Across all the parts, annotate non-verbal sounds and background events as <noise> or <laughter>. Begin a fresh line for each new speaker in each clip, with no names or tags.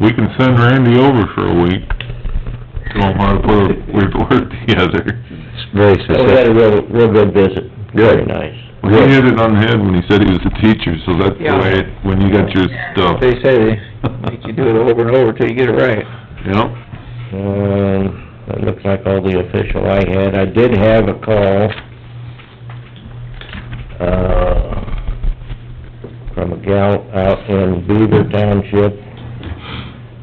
We can send Randy over for a week, show him how to put a <laughs> report together.
It's very
Well, we had a
specific.
real, real good visit, very nice.
Well, he hit it on the head when he said he was a teacher, so that's the
Yeah.
way, it- when you got your stuff.
They say they make you do it over and over till you get it right.
<laughs> Yep,
Um, that looks like all the official I had. I did have a call, uh, from a gal out in Beaver Township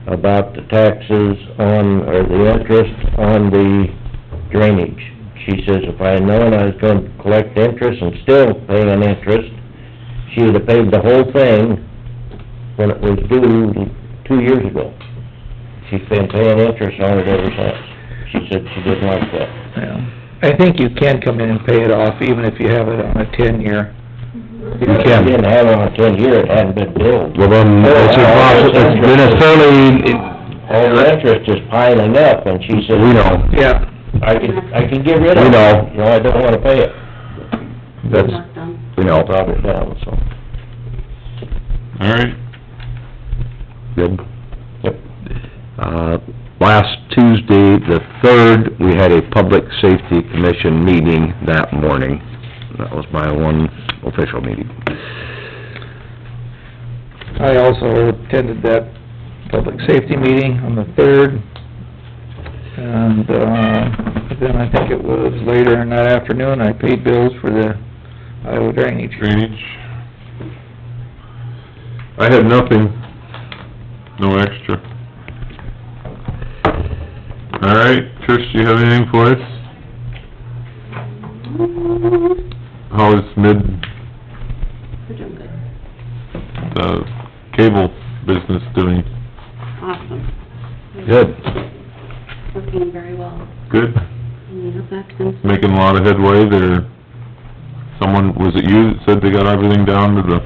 about the taxes on, or the interest on the drainage. She says if I had known I was gonna collect interest and still pay an interest, she would have paid the whole thing when it was due two years ago. She's been paying interest on it ever since. She said she didn't like that.
Yeah. I think you can come in and pay it off even if you have it on a ten-year.
You
can.
Didn't have it on ten year, it hadn't been billed.
Well, then, it's a process, it's been a fairly,
All the interest is piling up, and she said,
we know,
Yeah.
I can, I can get rid of it.
we know,
You know, I don't wanna pay it.
that's, we know,
Drop it down, so.
all right.
good. Uh, last Tuesday, the third, we had a Public Safety Commission meeting that morning. That was my one official meeting.
I also attended that public safety meeting on the third, and, uh, then I think it was later in that afternoon, I paid bills for the Iowa drainage.
drainage. I had nothing, no extra. All right, Trish, do you have anything for us? How is mid,
We're doing good.
uh, cable business doing?
Awesome.
Good.
Working very well.
Good?
And you know, that's been-
Making a lot of headway there? Someone, was it you that said they got everything down to the,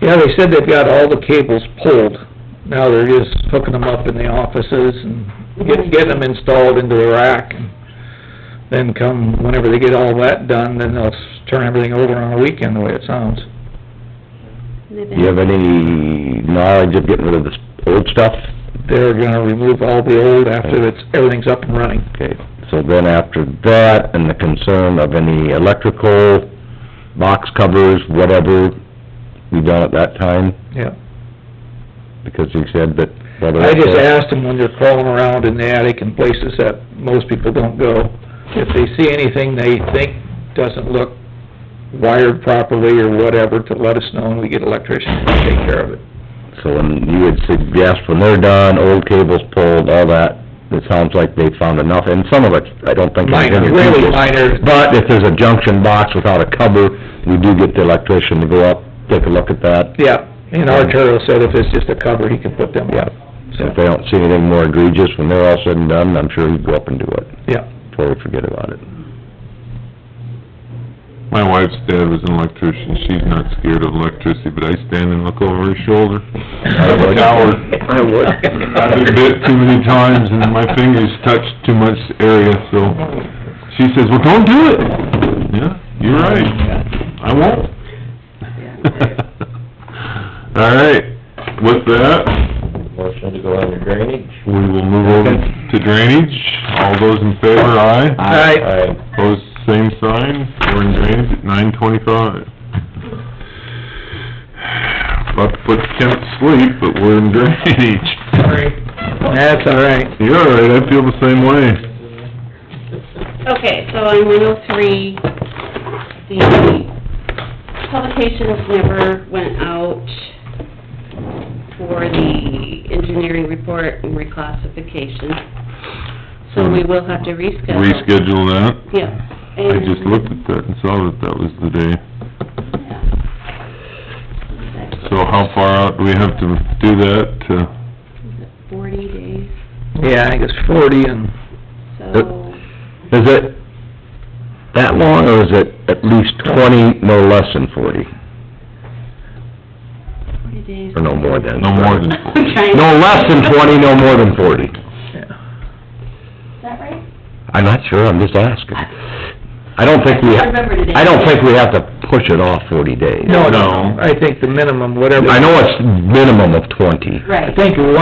Yeah, they said they've got all the cables pulled, now they're just hooking them up in the offices and get- getting them installed into the rack. and Then come, whenever they get all that done, then they'll s- turn everything over on a weekend, the way it sounds.
they've been-
Do you have any knowledge of getting rid of this old stuff?
They're gonna remove all the old after it's, everything's up and running.
Okay, so then after that, and the concern of any electrical, box covers, whatever, we done at that time?
Yeah.
Because you said that...
I just asked them when they're crawling around in the attic in places that most people don't go, if they see anything they think doesn't look wired properly or whatever, to let us know and we get electricians to take care of it.
So when you would suggest when they're done, old cables pulled, all that, it sounds like they found enough, and some of it, I don't think... is in
Minor,
your
really
cables.
minor,
But if there's a junction box without a cover, we do get the electrician to go up, take a look at that.
yeah, and Arturo said if it's just a cover, he can put them up,
So if they don't see anything more egregious, when they're all said and done, I'm sure he'd go up and do it,
yeah.
totally forget about it.
my wife's dad was an electrician, she's not scared of electricity, but I stand and look over her shoulder. I'm a coward.
I would.
I've been bit too many times and my fingers touch too much area, so she says, well, don't do it. Yeah, you're right, I won't. <laughs> All right, with that,
Motion to go under drainage.
we will move over to drainage. All those in favor, aye.
Alright.
Aye.
Opposed, same sign. We're in drainage at nine twenty-five. About to put Kent to sleep, but we're in drainage.
That's all right.
You're all right, I feel the same way.
Okay, so on one oh three, the publications never went out for the engineering report and reclassification, so we will have to reschedule.
reschedule that.
Yeah.
I just looked at that and saw that that was the day. So how far out do we have to do that? to-
Forty days,
Yeah, I think it's forty and,
so,
Is it that long, or is it at least twenty, no less than forty,
forty days.
or no more than?
No more than,
I'm trying-
No less than twenty, no more than forty.
yeah.
Is that right?
I'm not sure, I'm just asking. I don't think we,
I remember today.
I don't think we have to push it off forty days.
No,
No.
no, I think the minimum, whatever.
I know it's minimum of twenty.
Right.
I think